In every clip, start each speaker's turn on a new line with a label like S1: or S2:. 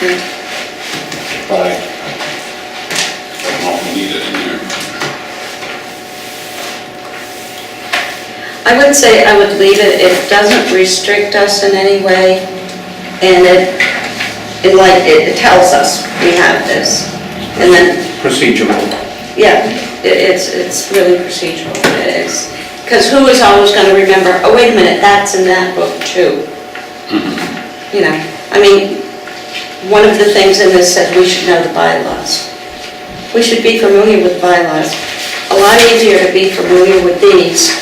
S1: Street, but I don't need it in there.
S2: I would say I would leave it, it doesn't restrict us in any way, and it, it like, it tells us we have this. And then,
S3: procedural.
S2: yeah, it- it's, it's really procedural, it is. Because who is always gonna remember, oh, wait a minute, that's in that book too? You know, I mean, one of the things in this said we should know the bylaws. We should be familiar with bylaws. A lot easier to be familiar with these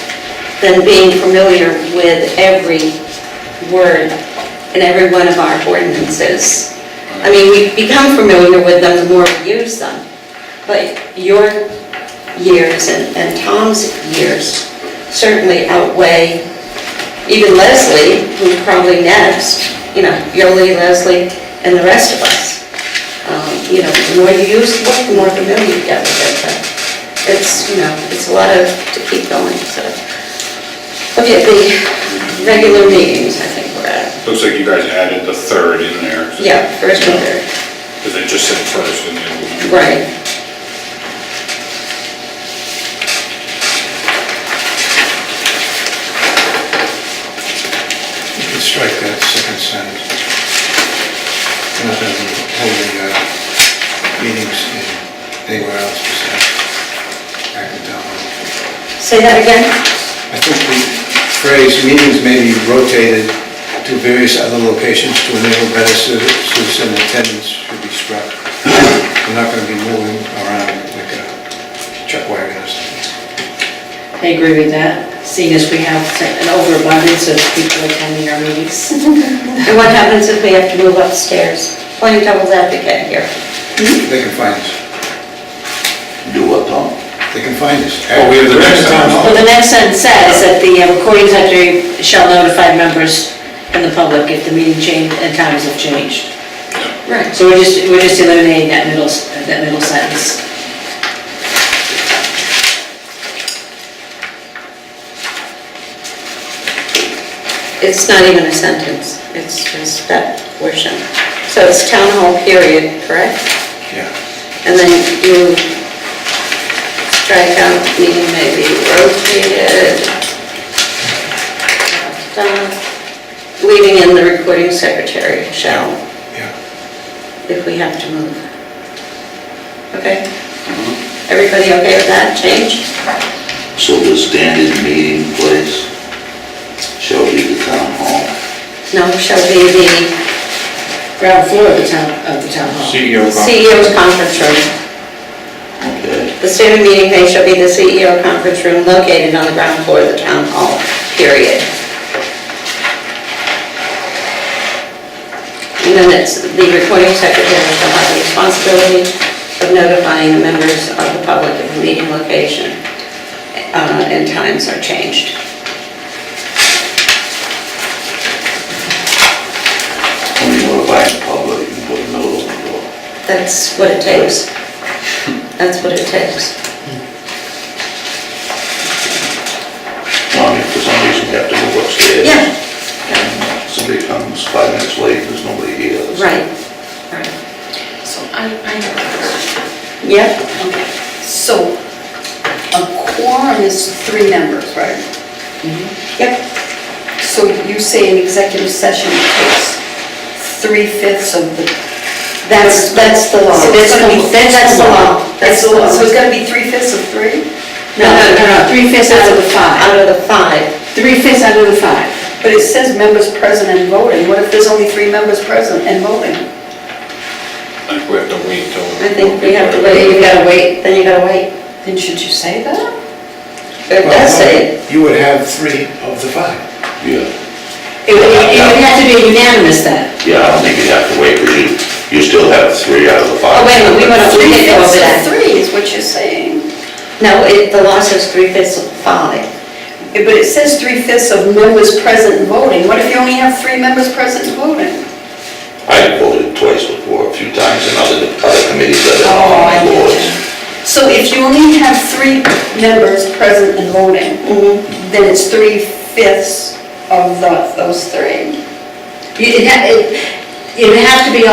S2: than being familiar with every word in every one of our ordinances. I mean, we become familiar with them the more we use them. But your years and and Tom's years certainly outweigh even Leslie, who's probably next, you know, Yoli, Leslie, and the rest of us. Um, You know, the more you use the book, the more familiar you get with it, but it's, you know, it's a lot of, to keep going, so. Okay, the regular meetings, I think we're at,
S1: Looks like you guys added the third in there.
S2: yeah, first and third,
S1: Because it just said first in the other one.
S2: right.
S3: You can strike that second sentence. Not that we hold the uh, meetings in anywhere else besides Acton
S2: Say that again?
S3: I think the phrase meetings may be rotated to various other locations to enable better ci- citizen attendance should be struck. We're not going to be moving around like a chuck wagon or something.
S4: I agree with that, seeing as we have an overabundance of people attending our meetings.
S2: And what happens if we have to move upstairs? Playing devil's advocate here.
S3: They can find us.
S5: Do what, Tom?
S3: They can find us.
S1: Oh, we have the next
S3: Town hall.
S4: Well, the next sentence says that the uh, recording secretary shall notify members and the public if the meeting change and times have changed.
S2: Right.
S4: So we're just, we're just eliminating that middle, s- that middle sentence.
S2: It's not even a sentence, it's just that portion. So it's town hall period, correct?
S3: Yeah.
S2: And then you strike out meeting may be rotated. Done. Leaving in the recording secretary shall,
S3: Yeah.
S2: if we have to move. Okay? Everybody okay with that change?
S5: So the standard meeting place shall be the town hall.
S2: No, shall be the
S4: Ground floor of the town, of the town hall.
S3: CEO
S2: CEO's E conference room.
S5: Okay,
S2: The standard meeting place shall be the CEO conference room located on the ground floor of the town hall, period. And then it's, the recording secretary shall have the responsibility of notifying the members of the public if the meeting location uh, and times are changed.
S5: when you notify the public, you can put a note on the door.
S2: That's what it takes. That's what it takes.
S5: Tom, if for some reason you have to go upstairs.
S2: Yeah.
S5: and Somebody comes five minutes late, there's nobody here. that's-
S2: Right, right.
S6: So I, I have a question.
S2: Yep,
S6: Okay. So a quorum is three members, right?
S2: yep,
S6: So you say an executive session takes three-fifths of the...
S2: that's, that's the law.
S6: So it's gonna be-
S2: That's the law. That's the law.
S6: So it's gonna be three-fifths of three?
S2: No, no, no, no.
S4: Three fifths out of the five.
S2: Out of the five.
S4: Three fifths out of the five.
S6: But it says members present and voting. What if there's only three members present and voting?
S1: I think we have to wait till.
S2: I think we have to wait.
S4: Then you gotta wait.
S2: Then you gotta wait.
S6: Then should you say that?
S2: But it does say, it.
S3: You would have three of the five.
S5: Yeah,
S4: It would, it would have to be unanimous then.
S5: yeah, I don't think you'd have to wait, because you, you still have three out of the
S2: Oh,
S5: five.
S2: wait a minute, we wanna- we didn't go over that.
S6: Three-fifths of three is what you're saying.
S2: no, it, the law says three fifths of five.
S6: Yeah, But it says three-fifths of members present and voting. What if you only have three members present and voting?
S5: I voted twice before, a few times, in other, other committees that
S6: Oh,
S5: are on
S6: I get
S5: boards.
S6: you. So if you only have three members present and voting, then it's three-fifths of the- those three.
S4: You- It, ha- it, it would have to be